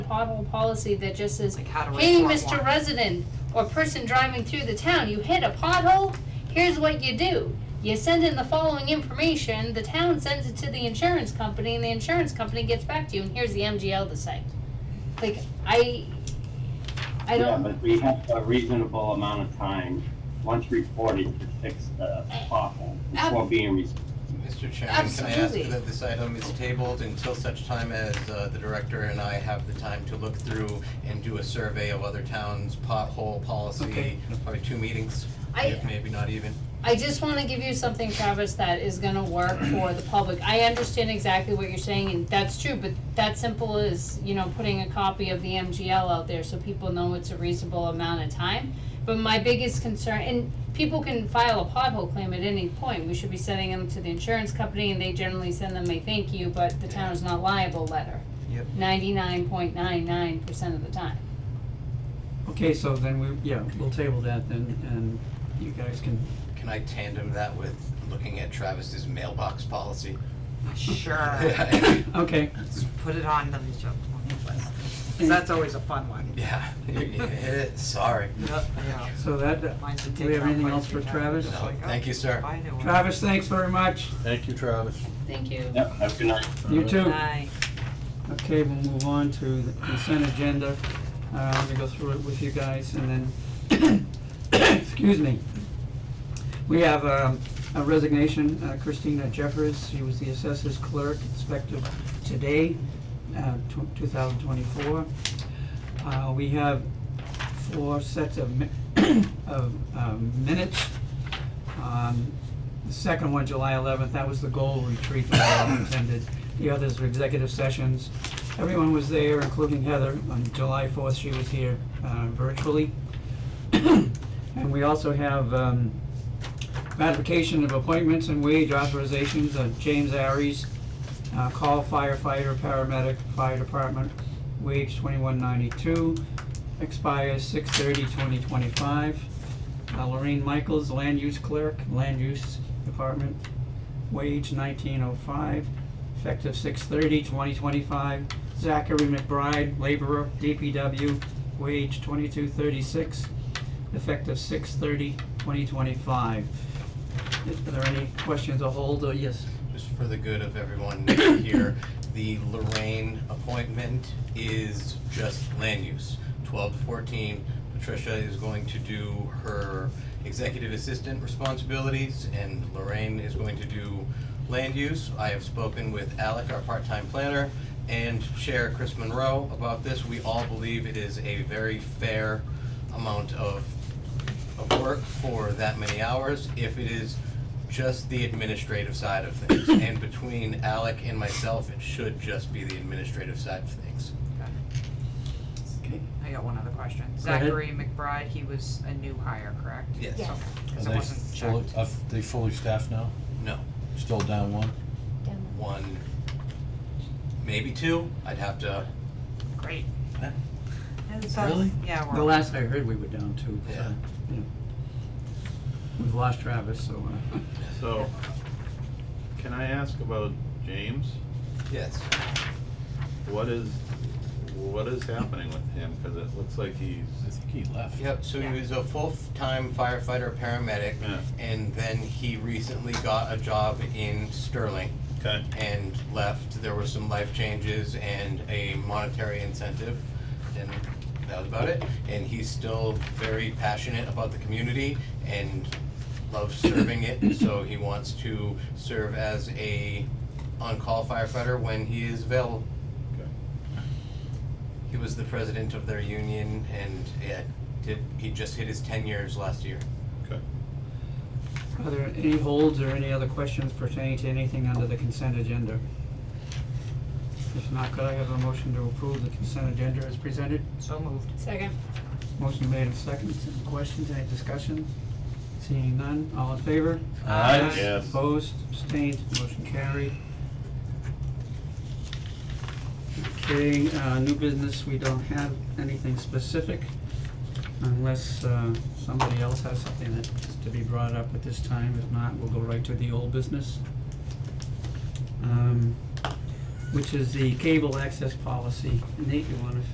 pothole policy that just says, Like how to hey, report Mr. one." Resident or person driving through the town, you hit a pothole, here's what you do. You send in the following information, the town sends it to the insurance company, and the insurance company gets back to you, and here's the MGL to say. Like, I, I Yeah, don't, but we have a reasonable amount of time, once reported, to fix the pothole before being reported. Mr. Chairman, can I ask Absolutely. that this item is tabled until such time as uh, the director and I have the time to look through and do a survey of other towns' pothole policy, Okay. probably two meetings, I- if maybe not even. I just wanna give you something, Travis, that is gonna work for the public. I understand exactly what you're saying, and that's true, but that simple as, you know, putting a copy of the MGL out there so people know it's a reasonable amount of time. But my biggest concern, and people can file a pothole claim at any point, we should be sending them to the insurance company, and they generally send them a thank you, but the town is not liable letter. Yep. Ninety-nine point nine nine percent of the time. Okay, so then we, yeah, we'll table that then, and you guys can, Can I tandem that with looking at Travis's mailbox policy? Sure, Yeah, okay, Let's put it on the joke. That's always a fun one. yeah, yeah, sorry. Yeah. so that, do Mine's a we have take-home anything place else for to go. Travis? Just like, oh, Thank you, sir. I know. Travis, thanks very much, Thank you, Travis. Thank you. Yep, have a good night. you too. Bye. Okay, we'll move on to the consent agenda, uh, let me go through it with you guys, and then, excuse me. We have, um, a resignation, uh, Christina Jeffers, she was the assessors clerk, effective today, uh, tw- two thousand twenty-four. Uh, we have four sets of mi- of, um, minutes. Um, the second one, July eleventh, that was the goal retreat that we all attended. The others were executive sessions. Everyone was there, including Heather. On July fourth, she was here, uh, virtually. And we also have, um, ratification of appointments and wage authorizations of James Aries, uh, call firefighter, paramedic, fire department, wage twenty-one ninety-two, expires 6/30, 2025. Uh, Lorraine Michaels, land use clerk, land use department, wage nineteen oh five, effective 6/30, 2025. Zachary McBride, laborer, DPW, wage twenty-two thirty-six, effective 6/30, 2025. Are there any questions or hold, or yes? just for the good of everyone here, the Lorraine appointment is just land use. Twelve to fourteen, Patricia is going to do her executive assistant responsibilities, and Lorraine is going to do land use. I have spoken with Alec, our part-time planner, and Chair Chris Monroe about this. We all believe it is a very fair amount of of work for that many hours if it is just the administrative side of things. And between Alec and myself, it should just be the administrative side of things. Okay. I got one other question. Go ahead. Zachary McBride, he was a new hire, correct? Yes. Yes. Okay, Are because it they wasn't fully, checked. are they fully staffed now? No, Still down one? Down one, maybe two, I'd have to, Great. Huh? And so- Really? Yeah, The we're, last I heard, we were down two, so, Yeah. you know. We've lost Travis, so, uh, So, can I ask about James? yes. What is, what is happening with him? Cause it looks like he's, I think he left. Yep, so he was a full-time firefighter, paramedic, Yeah. and then he recently got a job in Sterling. okay, and left. There were some life changes and a monetary incentive, and that was about it. And he's still very passionate about the community and loves serving it, so he wants to serve as a on-call firefighter when he is available. okay. He was the president of their union, and it did, he just hit his ten years last year. okay. are there any holds or any other questions pertaining to anything under the consent agenda? If not, could I have a motion to approve the consent agenda as presented? so moved. Second. Motion made and seconded. Any questions, any discussion? Seeing none, all in favor? Aye. Yes. Opposed, abstained, motion carried. Okay, uh, new business, we don't have anything specific unless, uh, somebody else has something that is to be brought up at this time. If not, we'll go right to the old business. Um, which is the cable access policy. Nate, you wanna